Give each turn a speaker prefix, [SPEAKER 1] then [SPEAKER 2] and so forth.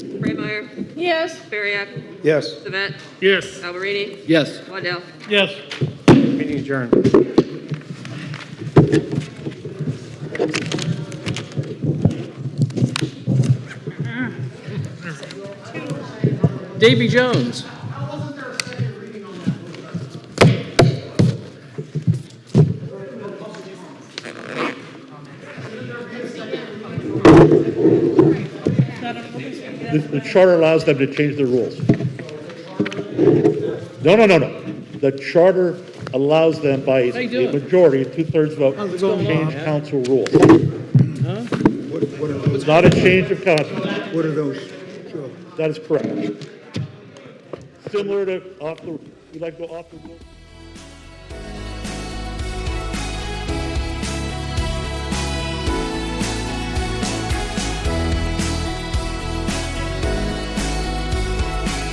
[SPEAKER 1] Blair? Yes. Bariak?
[SPEAKER 2] Yes.
[SPEAKER 1] Savant?
[SPEAKER 3] Yes.
[SPEAKER 1] Alberini?
[SPEAKER 4] Yes.
[SPEAKER 1] Waddell?
[SPEAKER 3] Yes.
[SPEAKER 2] Meeting adjourned.
[SPEAKER 4] Davy Jones.
[SPEAKER 3] The, the charter allows them to change their rules. No, no, no, no. The charter allows them by
[SPEAKER 4] How
[SPEAKER 3] a
[SPEAKER 4] you doing?
[SPEAKER 3] a majority, two-thirds vote, to change council rules.
[SPEAKER 5] What, what are those,
[SPEAKER 3] It's not a change of constitution.
[SPEAKER 5] what are those, Joe?
[SPEAKER 3] That is correct. Similar to off the, you like to go off the.